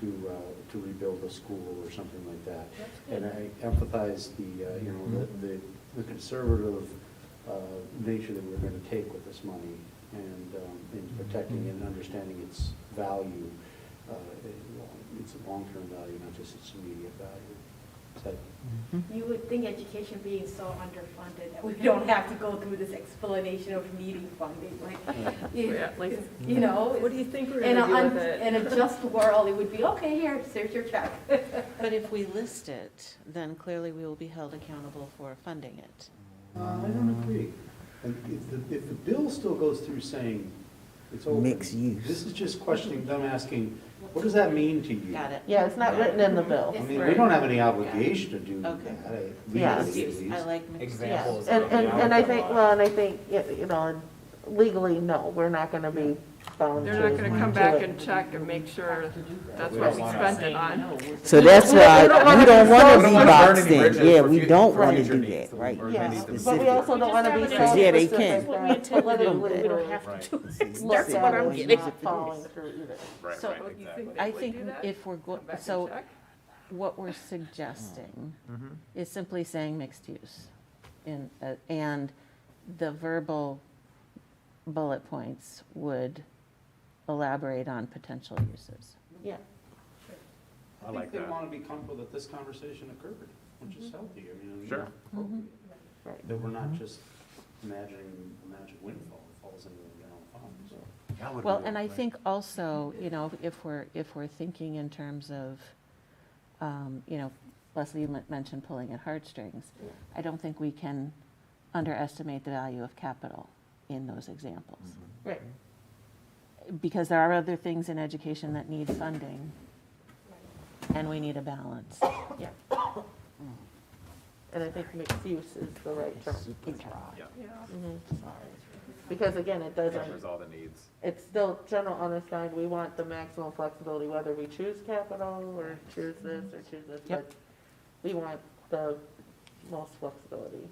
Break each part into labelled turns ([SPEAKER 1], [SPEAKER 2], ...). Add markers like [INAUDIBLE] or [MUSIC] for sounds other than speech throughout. [SPEAKER 1] to, uh, to rebuild a school or something like that.
[SPEAKER 2] That's good.
[SPEAKER 1] And I emphasize the, uh, you know, the- the, the conservative uh, nature that we're going to take with this money and um, in
[SPEAKER 3] Mm-hmm.
[SPEAKER 1] protecting and understanding its value, uh, it- its long-term value, not just its immediate value. So,
[SPEAKER 2] You would think education being so underfunded, that we don't have to go through this explanation of needing funding, like,
[SPEAKER 4] [LAUGHS]
[SPEAKER 2] you
[SPEAKER 5] Yeah, like-
[SPEAKER 2] you know?
[SPEAKER 5] What do you think we're
[SPEAKER 2] In
[SPEAKER 5] gonna
[SPEAKER 2] a,
[SPEAKER 5] do
[SPEAKER 2] un-
[SPEAKER 5] with it?
[SPEAKER 2] in
[SPEAKER 5] [LAUGHS]
[SPEAKER 2] a just world, it would be, okay, here, here's your check. [LAUGHS]
[SPEAKER 4] But if we list it, then clearly we will be held accountable for funding it.
[SPEAKER 1] uh, I don't agree. And If the, if the bill still goes through saying it's open.
[SPEAKER 3] Mixed use.
[SPEAKER 1] This is just questioning, them asking, what does that mean to you?
[SPEAKER 4] Got it?
[SPEAKER 6] Yeah, it's not written in the bill.
[SPEAKER 1] I mean, we
[SPEAKER 5] Right.
[SPEAKER 1] don't have any obligation to do that,
[SPEAKER 4] Okay.
[SPEAKER 6] Yeah.
[SPEAKER 1] legally at least.
[SPEAKER 4] I like mixed
[SPEAKER 6] Yeah,
[SPEAKER 7] Examples.
[SPEAKER 6] and,
[SPEAKER 7] of
[SPEAKER 6] and,
[SPEAKER 7] the
[SPEAKER 6] and I
[SPEAKER 7] outlaw.
[SPEAKER 6] think, well, and I think, y- you know, legally, no, we're not gonna be bound to.
[SPEAKER 5] They're not gonna come
[SPEAKER 6] to
[SPEAKER 5] back
[SPEAKER 6] it.
[SPEAKER 5] and check and make sure that's
[SPEAKER 7] We
[SPEAKER 5] what
[SPEAKER 7] don't
[SPEAKER 5] we
[SPEAKER 7] wanna
[SPEAKER 5] spent
[SPEAKER 7] say
[SPEAKER 5] it on.
[SPEAKER 3] So that's why, we don't
[SPEAKER 6] We
[SPEAKER 3] wanna
[SPEAKER 6] don't
[SPEAKER 3] be
[SPEAKER 6] wanna burn
[SPEAKER 3] boxed
[SPEAKER 7] any
[SPEAKER 3] in,
[SPEAKER 7] bridges
[SPEAKER 3] yeah,
[SPEAKER 7] for
[SPEAKER 3] we
[SPEAKER 7] fu-
[SPEAKER 3] don't
[SPEAKER 7] for
[SPEAKER 3] wanna
[SPEAKER 7] future
[SPEAKER 3] do
[SPEAKER 7] needs
[SPEAKER 3] that,
[SPEAKER 7] that
[SPEAKER 3] right?
[SPEAKER 7] we
[SPEAKER 6] Yeah,
[SPEAKER 7] Maybe
[SPEAKER 6] but we
[SPEAKER 3] specific.
[SPEAKER 6] also don't wanna be
[SPEAKER 2] We just
[SPEAKER 6] so
[SPEAKER 2] have
[SPEAKER 3] it in a-
[SPEAKER 6] specific.
[SPEAKER 3] That's
[SPEAKER 2] what we intend to do, but we don't have
[SPEAKER 7] Right.
[SPEAKER 6] That's
[SPEAKER 3] what I'm getting
[SPEAKER 6] Not
[SPEAKER 3] at.
[SPEAKER 6] following through either.
[SPEAKER 7] Right,
[SPEAKER 4] So
[SPEAKER 7] right,
[SPEAKER 5] you
[SPEAKER 7] exactly.
[SPEAKER 5] think-
[SPEAKER 4] I
[SPEAKER 5] Would
[SPEAKER 4] think
[SPEAKER 5] do that?
[SPEAKER 4] if we're, go-
[SPEAKER 5] Come back and
[SPEAKER 4] so
[SPEAKER 5] check.
[SPEAKER 4] what we're suggesting is simply saying mixed use. in- uh, And the verbal bullet points would elaborate on potential uses.
[SPEAKER 6] Yeah,
[SPEAKER 7] I like
[SPEAKER 1] think they
[SPEAKER 7] that.
[SPEAKER 1] want to be comfortable that this conversation occurred, which is healthy, I mean,
[SPEAKER 7] Sure.
[SPEAKER 1] it's appropriate.
[SPEAKER 6] right.
[SPEAKER 1] That we're not just imagining a magic windfall that falls into the general fund, so.
[SPEAKER 7] That would
[SPEAKER 4] Well,
[SPEAKER 7] be
[SPEAKER 4] and I
[SPEAKER 7] like-
[SPEAKER 4] think also, you know, if we're, if we're thinking in terms of, um, you know, Leslie men- mentioned pulling at heartstrings. I don't think we can underestimate the value of capital in those examples. Mm-hmm.
[SPEAKER 3] Mm-hmm.
[SPEAKER 6] Right.
[SPEAKER 4] Because there are other things in education that need funding, and we need a balance.
[SPEAKER 6] And I think mixed use is the right term.
[SPEAKER 7] Yeah,
[SPEAKER 5] Yeah.
[SPEAKER 6] Mhm. Because again, it doesn't,
[SPEAKER 7] covers all the needs.
[SPEAKER 6] it's still general unassigned, we want the maximum flexibility, whether we choose capital, or choose this, or choose this,
[SPEAKER 4] Yep.
[SPEAKER 6] but we want the most flexibility.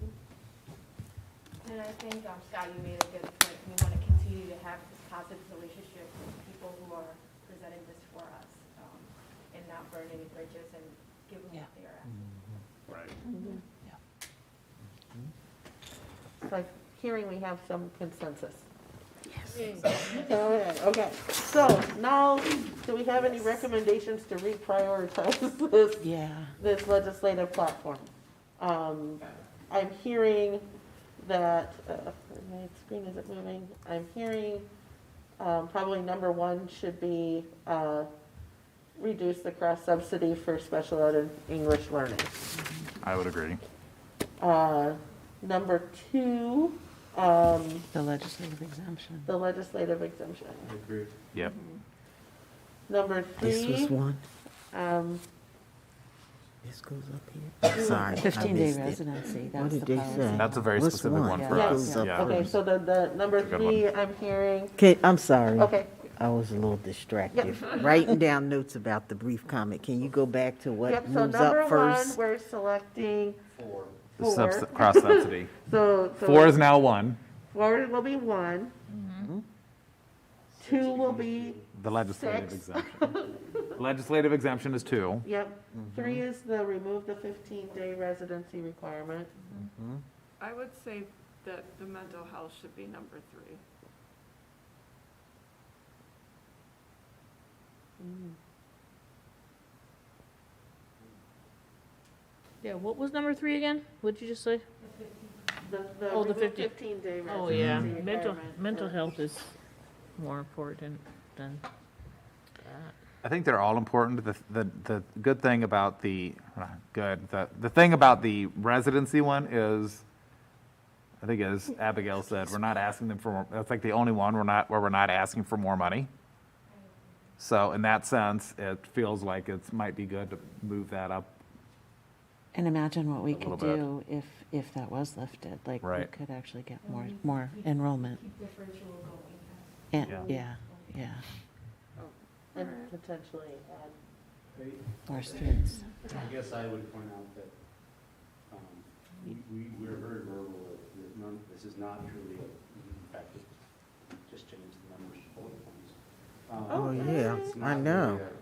[SPEAKER 2] And I think, um, Scott, you made a good point. We want to continue to have this positive relationship with people who are presenting this for us um, and not burn any bridges and give them what they're asking.
[SPEAKER 7] Right.
[SPEAKER 6] So I'm hearing we have some consensus. Yes. All right, okay, so now, do we have any recommendations to reprioritize [LAUGHS] this
[SPEAKER 4] Yeah.
[SPEAKER 6] this legislative platform. Um, I'm hearing that, uh, my screen isn't moving, I'm hearing um, probably number one should be uh, reduce the cross subsidy for special ed and English learning.
[SPEAKER 8] I would agree.
[SPEAKER 6] Uh, Number two, um,
[SPEAKER 4] The legislative exemption.
[SPEAKER 6] the legislative exemption.
[SPEAKER 1] I agree.
[SPEAKER 8] Yep.
[SPEAKER 6] Number
[SPEAKER 3] This was
[SPEAKER 6] three,
[SPEAKER 3] one,
[SPEAKER 6] um,
[SPEAKER 3] this goes up here, sorry, I
[SPEAKER 4] 15-day
[SPEAKER 3] missed it.
[SPEAKER 4] residency, that
[SPEAKER 3] What
[SPEAKER 4] was
[SPEAKER 3] did
[SPEAKER 4] the
[SPEAKER 3] they say?
[SPEAKER 4] policy.
[SPEAKER 8] That's a very
[SPEAKER 3] What's
[SPEAKER 8] specific one for
[SPEAKER 3] What
[SPEAKER 4] Yeah.
[SPEAKER 3] goes
[SPEAKER 4] Yeah.
[SPEAKER 3] up
[SPEAKER 8] Yeah.
[SPEAKER 6] okay,
[SPEAKER 3] first?
[SPEAKER 6] so the, the number
[SPEAKER 8] Good one.
[SPEAKER 6] three, I'm hearing,
[SPEAKER 3] Okay, I'm sorry.
[SPEAKER 6] okay,
[SPEAKER 3] I was a little distracted, writing down notes about the brief comment, can you go back to
[SPEAKER 6] Yep,
[SPEAKER 3] what
[SPEAKER 6] so
[SPEAKER 3] moves
[SPEAKER 6] number one,
[SPEAKER 3] up first?
[SPEAKER 6] we're selecting
[SPEAKER 1] Four,
[SPEAKER 8] The
[SPEAKER 6] four.
[SPEAKER 8] subs- Cross subsidy.
[SPEAKER 6] So, so
[SPEAKER 8] Four is now one,
[SPEAKER 6] Four will be one.
[SPEAKER 9] Mm-hmm.
[SPEAKER 6] Two will be,
[SPEAKER 8] the legislative
[SPEAKER 6] Six.
[SPEAKER 8] exemption. Legislative exemption is two.
[SPEAKER 6] yep. [LAUGHS] Three is the remove the 15-day residency requirement.
[SPEAKER 5] I would say that the mental health should be number three.
[SPEAKER 9] Mm-hmm. Yeah, what was number three again? What'd you just say?
[SPEAKER 6] The, the
[SPEAKER 9] Oh, the
[SPEAKER 6] remove
[SPEAKER 9] 50
[SPEAKER 6] 15-day
[SPEAKER 9] Oh,
[SPEAKER 6] residency
[SPEAKER 9] yeah,
[SPEAKER 6] requirement.
[SPEAKER 9] mental, mental
[SPEAKER 6] for-
[SPEAKER 9] health is more important than
[SPEAKER 8] I think they're all important. The, the, the good thing about the, uh, good, the, the thing about the residency one is, I think as Abigail said, we're not asking them for, more that's like the only one we're not, where we're not asking for more money. So in that sense, it feels like it's, might be good to move that up.
[SPEAKER 4] And imagine what we
[SPEAKER 8] A little
[SPEAKER 4] could
[SPEAKER 8] bit.
[SPEAKER 4] do if, if that was lifted, like, we
[SPEAKER 8] Right.
[SPEAKER 4] could actually get more, more enrollment.
[SPEAKER 2] Keep differential going.
[SPEAKER 4] And,
[SPEAKER 8] Yeah.
[SPEAKER 4] yeah, yeah,
[SPEAKER 6] And potentially uh, add
[SPEAKER 1] I
[SPEAKER 4] more students.
[SPEAKER 1] I guess I would point out that, um, we, we- we're very verbal, that- that none, this is not truly a, in fact, it just changed the numbers to bullet points. Um,
[SPEAKER 3] Oh, yeah,
[SPEAKER 1] it's
[SPEAKER 3] I
[SPEAKER 1] not
[SPEAKER 3] know.
[SPEAKER 1] really a-